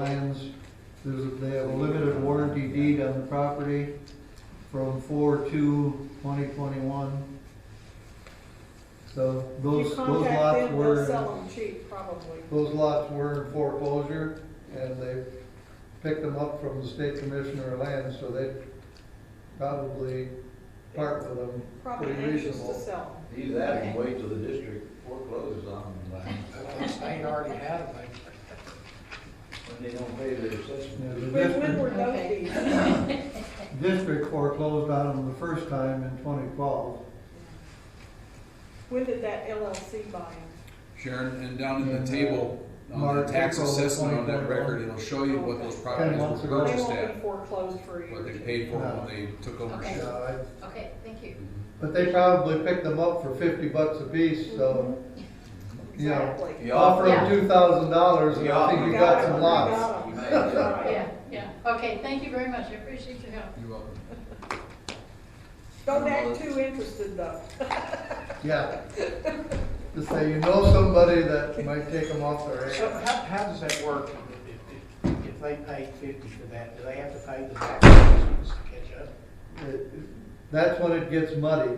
lands. There's, they have a limited warranty deed on the property from four to twenty twenty-one. So If those, those you contact lots them, they'll were, sell them cheap, probably. those lots were in foreclosure and they picked them up from the state commissioner of lands, so they probably part with them. Probably Pretty anxious reasonable. to sell them. Either that or wait till the district forecloses on them by- State already had it, when they don't pay their assessment. Yeah, the When, when district- were those Okay. deeds? District foreclosed on them the first time in twenty twelve. When did that LLC buy them? Sharon, and down in And, the uh, table, on the March, tax April of assessment on that 2021. record, it'll show you what those Ten properties months were ago. They purchased won't be at, foreclosed for a year. what they paid for No. when they took over. Okay. Sharon. Uh, Okay, thank you. But they probably picked them up for fifty bucks a piece, so Yeah. Exactly. You offer offer, them two thousand dollars and I Yeah. think you got some You lots. got 'em. You made it. Right. Yeah, yeah. Okay, thank you very much. I appreciate your help. You're welcome. Don't act too interested though. Yeah. Just say you know somebody that might take them off their So hands. how, how does that work if, if, if they paid fifty for that? Do they have to pay the taxes to catch up? It- That's when it gets muddy.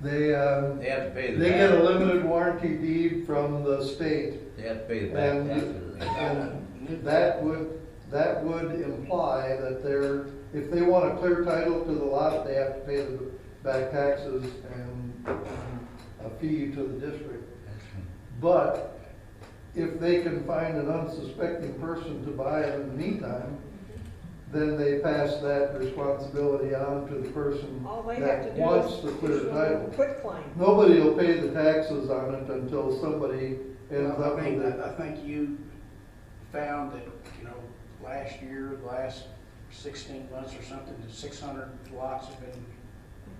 They, um, they have to pay the they get a back, limited warranty deed from the state they have to pay the back and, taxes. and that would, that would imply that they're, if they want a clear title to the lot, they have to pay the back taxes and a fee to the district. But if they can find an unsuspecting person to buy it in the meantime, then they pass that responsibility on to the person All they have to that do wants is the clear issue a title. Quit claim. Nobody will pay the taxes on it until somebody ends up I mean, with it. I, I think you found that, you know, last year, last sixteen months or something, that six hundred lots have been,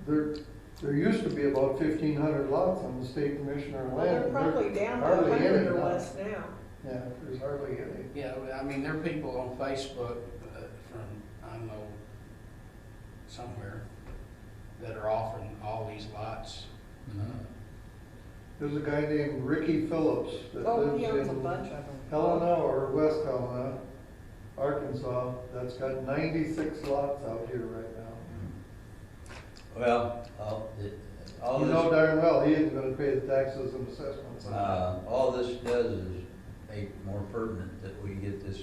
There, there used to be about fifteen hundred lots on the state commissioner land. Well, they're probably down to a hardly hundred any or now. less now. Yeah, there's hardly any. you know, I mean, there are people on Facebook uh, from, I don't know, somewhere, that are offering all these lots. Mhm. There's a guy named Ricky Phillips that Oh, he lives owns a in bunch of them. Helena or West Helena, Arkansas, that's got ninety-six lots out here right now. Well, all, it- all You know this, darn well, he isn't gonna pay the taxes and assessments on uh, all this does is make more pertinent that we get this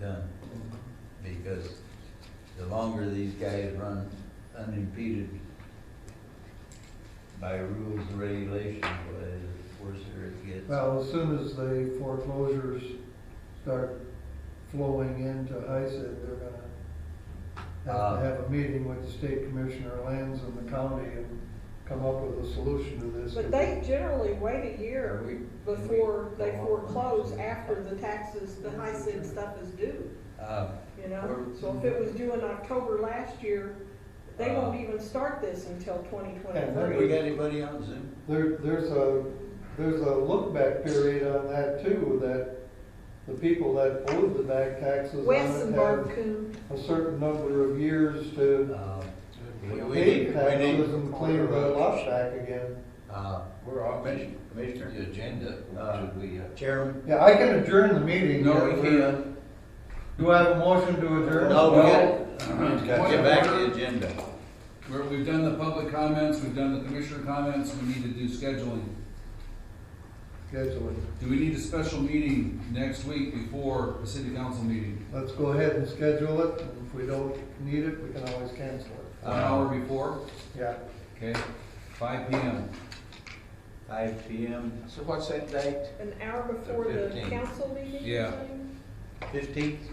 done. it. because the longer these guys run unimpeded by rules and regulations, well, the worse it gets. Well, as soon as the foreclosures start flowing into HISA, they're gonna have Uh. to have a meeting with the state commissioner of lands and the county and come up with a solution to this. But they generally wait a Are year we- before they Go on. foreclose after the taxes, the high SID stuff is due, Uh, you know? So if it was due in October last year, they won't even start this until twenty Yeah, twenty-three. we got anybody on Zoom? There, there's a, there's a look-back period on that too, that the people that owed the back taxes Wes and on it Barb have Coon. a certain number of years to Uh, we- we pay need- we need- taxes and clear the lot back again. Uh, we're on commission, commissioner. The agenda, Uh, should we, uh, Chairman? Yeah, I can adjourn the meeting. No, Yeah, we we're- can't. Do I have a motion to adjourn? No, we well, got, got to uh-huh. get back to the agenda. We're, we've done the public comments, we've done the commissioner comments, we need to do scheduling. Scheduling. Do we need a special meeting next week before the city council meeting? Let's go ahead and schedule it, and if we don't need it, we can always cancel it. One Uh-huh. hour before, Yeah. okay, five P M. Five P M, So what's that date? An hour before the 15th. council meeting? you Yeah. say? fifteenth,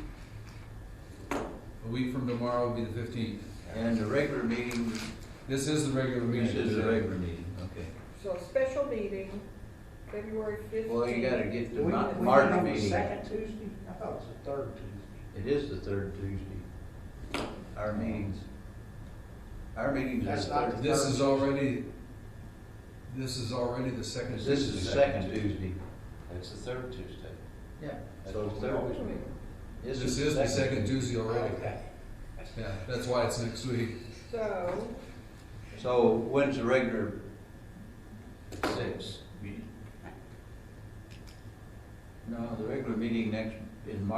A week from tomorrow will be the fifteenth. and the regular meeting, This is the regular meeting. this is the regular meeting, okay. So a special meeting, February fifteenth. Well, you gotta get We- to we Mar- met March on the meeting. Second Tuesday? I thought it was the third Tuesday. It is the third Tuesday. Our meetings, our meetings are That's not third. This is already, this is already the second. This is the second Tuesday. it's the third Tuesday. Yeah. So it's third Tuesday. This is the second Tuesday already. Okay. Yeah, that's why it's next week. So, So when's the regular? Six. No, the regular meeting next, in March